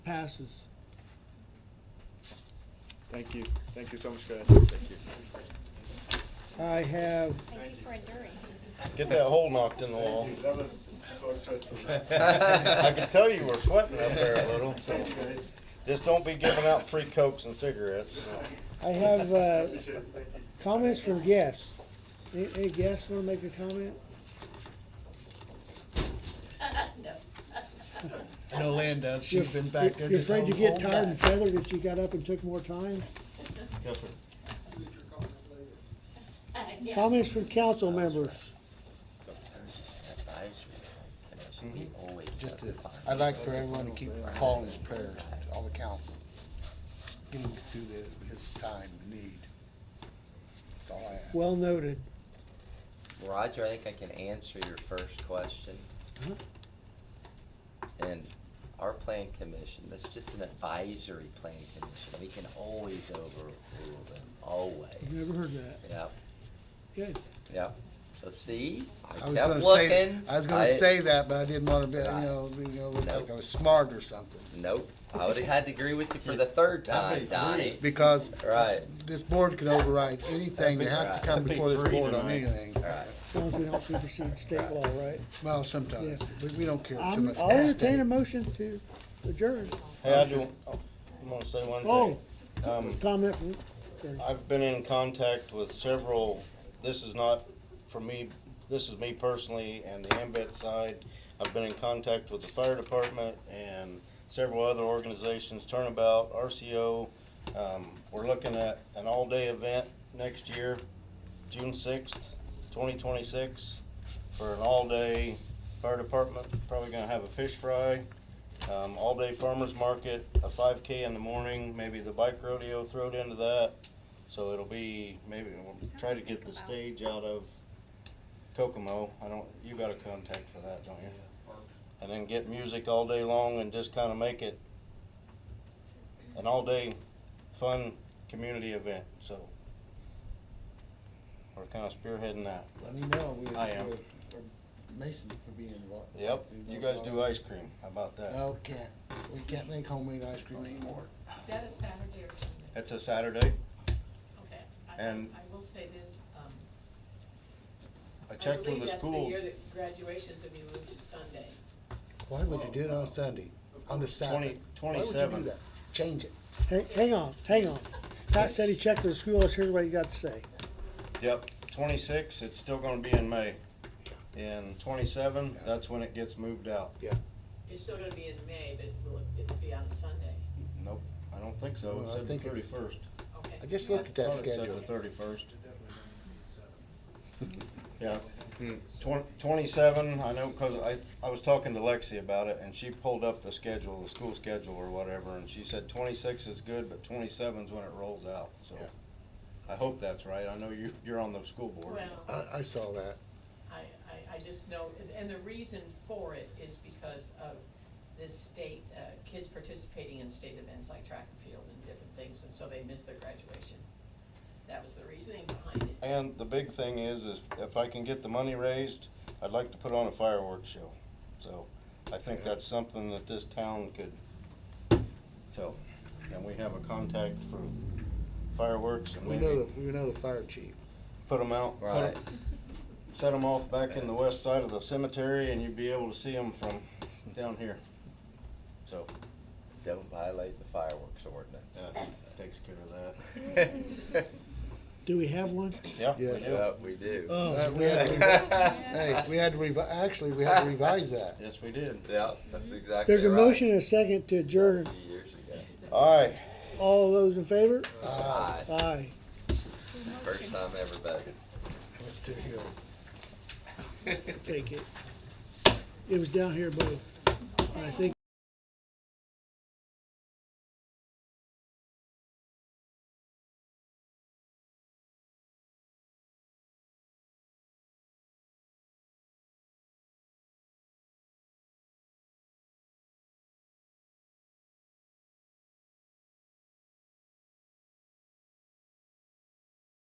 Passes. Thank you, thank you so much, guys. Thank you. I have, Thank you for enduring. Get that hole knocked in the wall. That was so stressful. I can tell you were sweating up there a little, so Thank you, guys. just don't be giving out free cokes and cigarettes. I have uh, Appreciate it. Thank you. comments from guests. Any any guests want to make a comment? No. I know Lynn does, You're- she's been back there. You're just afraid you on- get on tired and back. feathered if you got up and took more time? Yes, sir. Yeah. Comments from council members. Just to, I'd like for everyone to keep calling his prayers, all the council. Get him through the, his time of need. That's all I ask. Well noted. Roger, I think I can answer your first question. Uh-huh. Huh? And our plan commission, that's just an advisory plan commission, we can always overrule them, I've never always. heard that. Yep, Good. yep, so see, I I was kept gonna say- looking. I was gonna say that, but I didn't wanna be, you Right. know, you know, look Nope. like I was smart or something. Nope, I would've had to agree with you for the third time, That'd be Donnie, Because right, this board can override anything, they have to come That'd be before this three board on tonight. anything. right. As long as we don't supersede state law, right? Well, sometimes, we, we don't care too I'm- much. I'll entertain a motion to adjourn. Oh, Hey, I do, I wanna say one thing. Um, Comment from, I've been in contact with several, this is not for me, this is me personally and the Ambet side. I've been in contact with the fire department and several other organizations, Turnabout, RCO. Um, we're looking at an all-day event next year, June sixth, twenty twenty-six, for an all-day fire department, probably gonna have a fish fry, um, all-day farmer's market, a five K in the morning, maybe the bike rodeo thrown into that. So it'll be, maybe, we'll try to get the stage out of Kokomo. I don't, you got a contact for that, don't you? And then get music all day long and just kinda make it an all-day fun community event, so. We're kinda spearheading that. Let me know. we- I am. Mason would be involved. Yep, you guys do ice cream, how about that? No, can't. We can't make homemade ice cream anymore. Is that a Saturday or Sunday? It's a Saturday. Okay. I- And- I will say this, um. I checked with the I believe that's the school, year that graduation's gonna be moved to Sunday. Why would you do it on a Sunday, on the Saturday? twenty, Why would you do twenty-seven. that? Change it. hang hang on, hang on. Pat said he checked with the school, let's hear what you got to say. Yep, twenty-six, it's still gonna be in May. And twenty-seven, Yeah. that's when it gets moved out. It's still gonna be in May, but will it, it'll be on a Sunday. Nope, I don't think so, Well, I it said think the it's- thirty-first. Okay. I just looked at that schedule. the thirty-first. Yeah, Hmm. Twen- twenty-seven, I know, cause I, I was talking to Lexi about it, and she pulled up the schedule, the school schedule or whatever, and she said twenty-six is good, but twenty-seven's when it rolls out, so. Yeah. I hope that's right, I know you, you're on the school board. Well, I, I saw that. I, I, I just know, and- and the reason for it is because of this state, uh, kids participating in state events like track and field and different things, and so they miss their graduation. That was the reasoning behind it. And the big thing is, is if I can get the money raised, I'd like to put on a fireworks show. So I think that's something that this town could, so, and we have a contact for fireworks and We know maybe the, we know the fire chief. put them out. put 'em- Right. Set them off back in the west side of the cemetery and you'd be able to see them from down here. So, Don't violate the fireworks ordinance. that takes care of that. Do we have one? Yeah, we Yes. do. Yeah, we do. Oh, Uh, we had to revi- Hey, we had to revi, actually, we had to revise that. Yes, we did. Yeah, that's exactly right. There's a motion and a second to adjourn. Few years ago. All right. All those in favor? Aye. Aye. First time ever voted. To heal. Take it. It was down here both. I think